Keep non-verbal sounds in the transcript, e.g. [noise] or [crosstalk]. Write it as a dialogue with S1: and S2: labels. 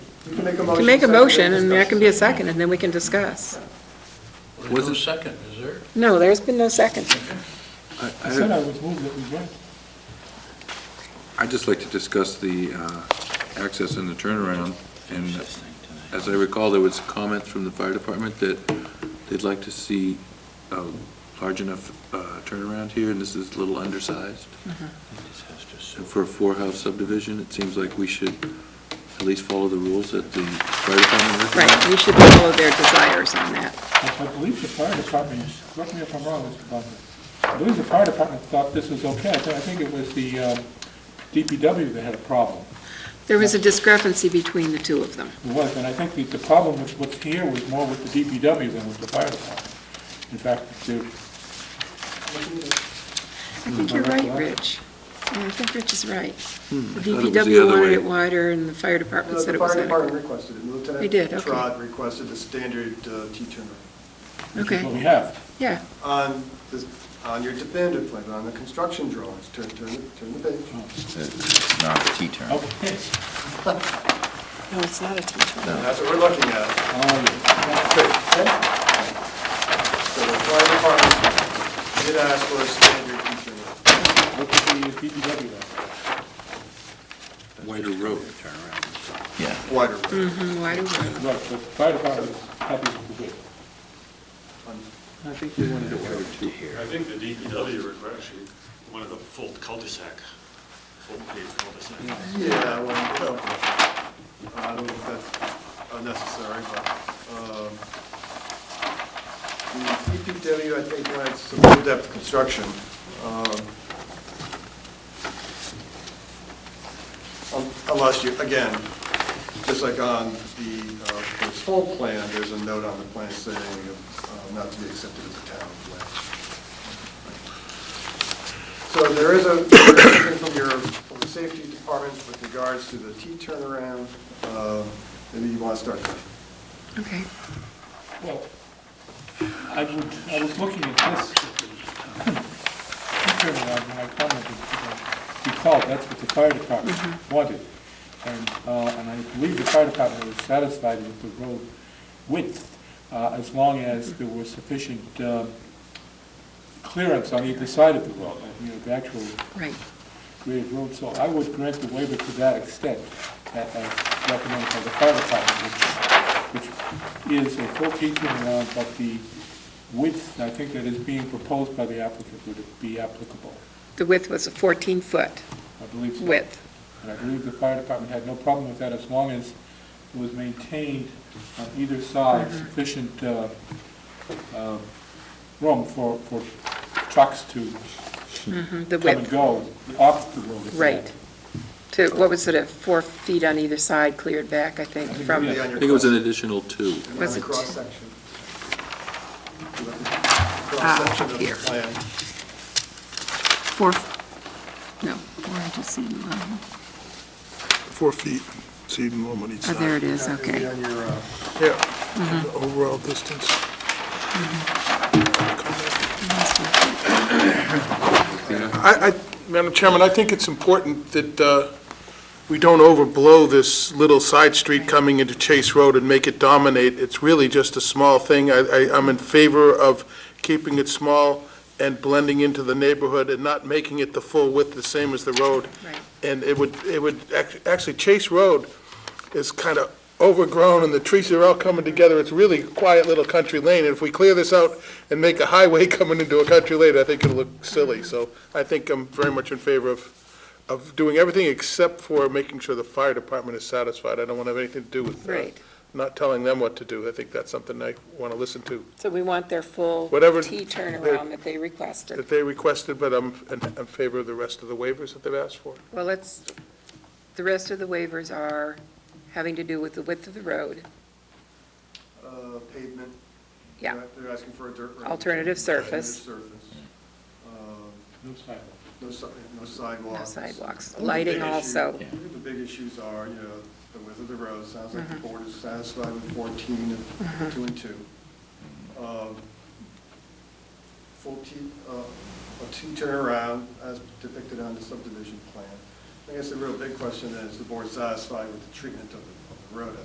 S1: You can make a
S2: You can
S1: motion.
S2: make a
S1: second, and
S2: motion, and there
S1: discuss.
S2: can be a second, and then we can discuss.
S3: There's no second, is there?
S2: No, there's been no second.
S4: I-
S5: I said
S4: I-
S5: I would move that we grant.
S4: I'd just like to discuss the uh, access and the turnaround. And as I recall, there was comments from the fire department that they'd like to see a large enough uh, turnaround here, and this is a little undersized. And for a four-house subdivision, it seems like we should at least follow the rules that the fire department
S2: Right,
S4: recommends.
S2: we should follow their desires on that.
S5: I I believe the fire department, is- correct me if I'm wrong, Mr. Bunker, I believe the fire department thought this was okay. I thi- I think it was the uh, DPW that had a problem.
S2: There was a discrepancy between the two of them.
S5: It was, and I think the- the problem with what's here was more with the DPW than with the fire department. In fact, the
S2: I think you're right, Rich. Yeah, I think Rich is right. The
S4: I thought it was the
S2: DPW
S4: other
S2: wanted
S4: way.
S2: it wider, and Hmm. the fire
S1: No,
S2: department said
S1: The
S2: it was
S1: fire
S2: adequate.
S1: department requested it,
S2: They did,
S1: Lieutenant
S2: okay.
S1: Trot requested a standard uh, T-turnaround.
S5: which is what
S2: Okay,
S5: we have.
S2: yeah,
S1: On, this- on your definitive plan, on the construction drawings, turn, turn, turn the page.
S6: It's not a T-turn.
S5: Okay.
S2: no, it's not a T-turn.
S1: That's what we're looking at.
S5: Oh, yeah.
S1: Okay. So the fire department did ask for a standard T-turnaround.
S5: What did the DPW have?
S4: Wider road.
S6: Yeah.
S1: Wider road.
S2: Mhm, Wider road.
S5: Right, the fire department was happy with the bid.
S4: I think they wanted it wider too.
S7: I think the DPW is actually one of the full cul-de-sac, full paved cul-de-sac.
S1: Yeah, well, well, I don't know if that's unnecessary, but, um, the DPW, I think, wanted some in-depth construction. um, un- Unless you, again, just like on the, uh, this whole plan, there's a note on the plan saying uh, not to be accepted as a town plan. So there is a, there is from your, from the safety department with regards to the T turnaround, um, maybe you want to start there.
S2: Okay.
S5: Well, I would, I was looking at this, turnaround, when I commented, if you recall, that's what the fire department wanted. And, uh, and I believe the fire department was satisfied with the road width, uh, as long as there was sufficient, uh, clearance on either side of the road, you know, the actual
S2: Right.
S5: grade road, so I would grant the waiver to that extent, a- as recommended by the fire department, which, which is a full T turnaround, but the width, I think that is being proposed by the applicant would be applicable,
S2: The width was a 14-foot
S5: I believe so.
S2: width.
S5: And I believe the fire department had no problem with that as long as it was maintained on either
S2: Mm-hmm.
S5: side sufficient uh, uh, room for, for trucks to
S2: Mhm, The
S5: come and
S2: width,
S5: go off the road. if they had
S2: right. To, what was it, a four feet on either side cleared back, I think,
S5: I think,
S2: from,
S5: yeah.
S1: Maybe on
S4: I
S1: your
S4: think it was an
S1: cross-
S4: additional two.
S1: on
S2: Was
S1: the
S2: it-
S1: Cross-section.
S2: Ah,
S1: Cross-section of the
S2: here.
S1: plan.
S2: four, no, four inches seam allowable.
S8: four feet, so even more on each
S2: Oh, there it
S8: side.
S2: is, okay.
S1: Maybe on your, uh,
S8: Yeah, the overall distance. I, I, Madam Chairman, I think it's important that uh, we don't overblow this little side street coming into Chase Road and make it dominate. It's really just a small thing. I, I- I'm in favor of keeping it small and blending into the neighborhood and not making it the full width, the same as the road.
S2: Right.
S8: And it would, it would, act- actually, Chase Road is kind of overgrown, and the trees are all coming together. It's really a quiet little country lane, and if we clear this out and make a highway [laughs] coming into a country lane, I think it'll look silly. So I think I'm very much in favor of, of doing everything except for making sure the fire department is satisfied. I don't want to have anything to do with uh,
S2: Right.
S8: not telling them what to do. I think that's something I want to listen to,
S2: So we want their full T
S8: Whatever-
S2: turnaround that they requested.
S8: that they requested, but I'm in in favor of the rest of the waivers that they've asked for.
S2: Well, let's, the rest of the waivers are having to do with the width of the road,
S1: uh, pavement.
S2: Yeah.
S1: They're- They're asking for a dirt road.
S2: Alternative surface.
S1: Alternative surface. Um,
S5: No sidewalk.
S1: No si- no sidewalks.
S2: no sidewalks,
S1: I think the
S2: lighting
S1: big issue-
S2: also.
S1: I think The big issues are, you know, the width of the road, sounds like the
S2: Mm-hmm.
S1: board is satisfied with 14 and 2 and 2. Um, Full T, uh, a T turnaround as depicted on the subdivision plan. I guess the real big question is, the board satisfied with the treatment of the- of the road